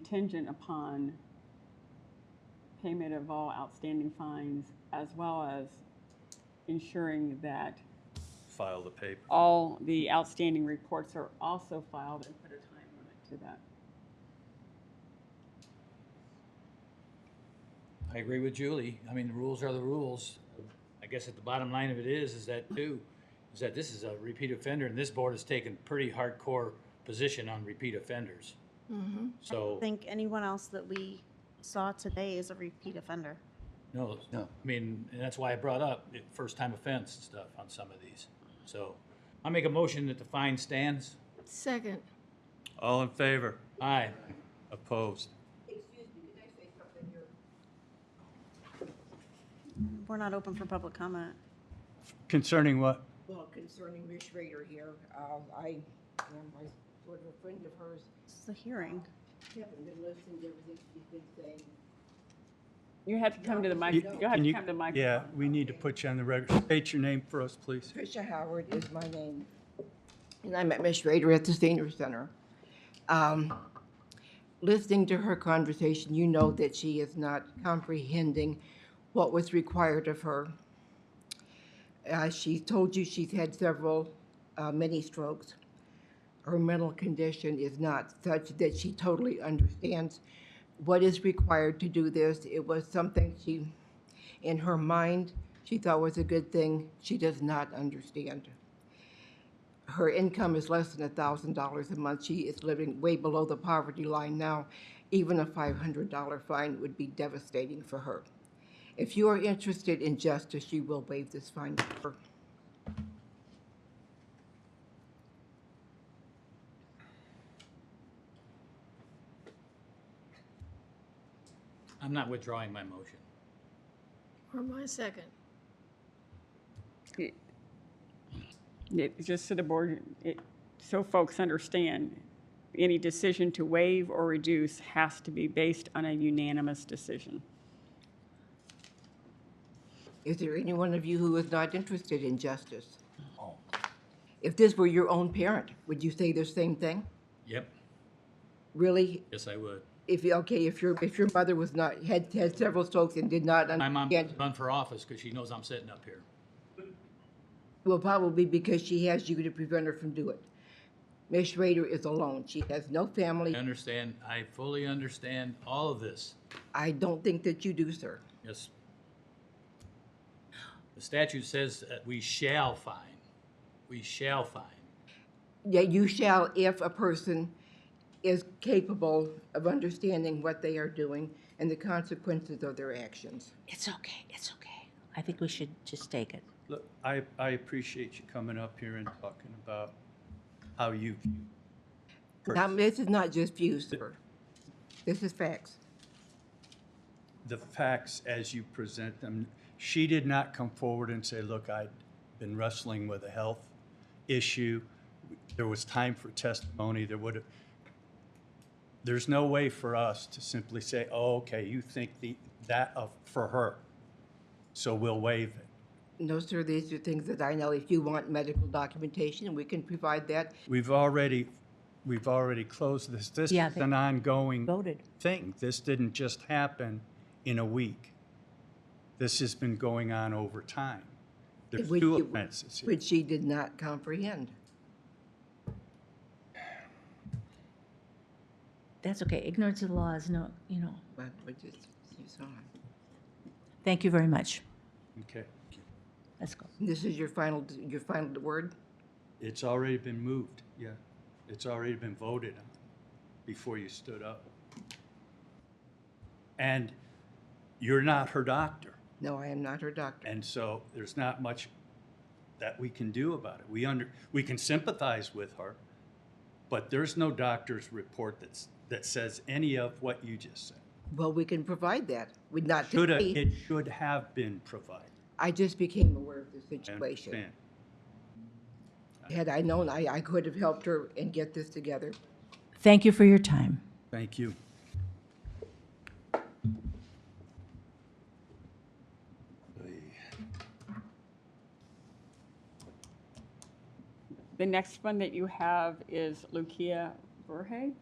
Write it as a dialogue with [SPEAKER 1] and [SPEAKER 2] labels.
[SPEAKER 1] contingent upon payment of all outstanding fines as well as ensuring that
[SPEAKER 2] file the paper.
[SPEAKER 1] all the outstanding reports are also filed and put a time limit to that.
[SPEAKER 3] I agree with Julie. I mean, the rules are the rules. I guess at the bottom line of it is, is that too, is that this is a repeat offender and this board has taken pretty hardcore position on repeat offenders.
[SPEAKER 4] Mm-hmm. I
[SPEAKER 3] So,
[SPEAKER 4] think anyone else that we saw today is a repeat offender.
[SPEAKER 3] no, I mean, and that's why I brought up it- first time offense stuff on some of these. So I make a motion that the fine stands.
[SPEAKER 5] Second.
[SPEAKER 2] All in favor?
[SPEAKER 3] Aye.
[SPEAKER 2] Opposed?
[SPEAKER 4] We're not open for public comment.
[SPEAKER 6] Concerning what?
[SPEAKER 7] Well, concerning Ms. Schrader here, um, I am a sort of a friend of hers.
[SPEAKER 4] This is a hearing.
[SPEAKER 7] Haven't been listening to everything she's been saying.
[SPEAKER 1] You have to come to the mic,
[SPEAKER 6] You-
[SPEAKER 1] you'll have
[SPEAKER 6] can
[SPEAKER 1] to
[SPEAKER 6] you-
[SPEAKER 1] come to the mic.
[SPEAKER 6] Yeah, we need to put you on the record. State your name for us, please.
[SPEAKER 7] Tricia Howard is my name, and I met Ms. Schrader at the senior center. Um, Listening to her conversation, you know that she is not comprehending what was required of her. Uh, She told you she's had several uh, mini strokes. Her mental condition is not such that she totally understands what is required to do this. It was something she in her mind she thought was a good thing she does not understand her income is less than $1000 a month she is living way below the poverty line now even a $500 fine would be devastating for her if you are interested in justice you will waive this fine for her.
[SPEAKER 3] I'm not withdrawing my motion.
[SPEAKER 5] Or my second.
[SPEAKER 1] It- Just so the board, it- so folks understand, any decision to waive or reduce has to be based on a unanimous decision.
[SPEAKER 7] Is there any one of you who is not interested in justice?
[SPEAKER 3] Oh.
[SPEAKER 7] If this were your own parent, would you say the same thing?
[SPEAKER 3] Yep,
[SPEAKER 7] Really,
[SPEAKER 3] yes, I would.
[SPEAKER 7] if okay, if your if your mother was not had had several strokes and did not
[SPEAKER 3] My mom
[SPEAKER 7] understand,
[SPEAKER 3] run for office because she knows I'm sitting up here.
[SPEAKER 7] well, probably because she has you to prevent her from doing it. Miss Schrader is alone. She has no family.
[SPEAKER 3] I understand, I fully understand all of this.
[SPEAKER 7] I don't think that you do, sir.
[SPEAKER 3] Yes. The statute says that we shall fine. We shall fine.
[SPEAKER 7] Yeah, you shall if a person is capable of understanding what they are doing and the consequences of their actions.
[SPEAKER 8] It's okay, it's okay. I think we should just take it.
[SPEAKER 6] Look, I, I appreciate you coming up here and talking about how you view.
[SPEAKER 7] Now, this is not just views, sir. This is facts.
[SPEAKER 6] the facts as you present them. She did not come forward and say, look, I've been wrestling with a health issue. There was time for testimony. There would have, there's no way for us to simply say, oh, okay, you think the, that of, for her. So we'll waive it.
[SPEAKER 7] No, sir, these are things that I know. If you want medical documentation, we can provide that.
[SPEAKER 6] We've already, we've already closed this. This
[SPEAKER 8] Yeah,
[SPEAKER 6] is
[SPEAKER 8] they
[SPEAKER 6] an ongoing.
[SPEAKER 8] Voted.
[SPEAKER 6] thing. This didn't just happen in a week. This has been going on over time. There's
[SPEAKER 7] which
[SPEAKER 6] two
[SPEAKER 7] you-
[SPEAKER 6] offenses here.
[SPEAKER 7] Which she did not comprehend.
[SPEAKER 8] That's okay. Ignorance of the law is no, you know.
[SPEAKER 7] But which is, you saw. it.
[SPEAKER 8] Thank you very much.
[SPEAKER 6] Okay.
[SPEAKER 8] Let's go.
[SPEAKER 7] This is your final, your final word?
[SPEAKER 6] It's already been moved, yeah. It's already been voted on before you stood up. And you're not her doctor,
[SPEAKER 7] No, I am not her doctor.
[SPEAKER 6] and so there's not much that we can do about it. We under, we can sympathize with her, but there's no doctor's report that's, that says any of what you just said.
[SPEAKER 7] Well, we can provide that. We'd not to
[SPEAKER 6] Should have,
[SPEAKER 7] me.
[SPEAKER 6] it should have been provided.
[SPEAKER 7] I just became aware of the
[SPEAKER 6] I
[SPEAKER 7] situation.
[SPEAKER 6] understand.
[SPEAKER 7] Had I known, I, I could have helped her and get this together.
[SPEAKER 8] Thank you for your time.
[SPEAKER 6] Thank you.
[SPEAKER 1] The next one that you have is Lucia Verhey.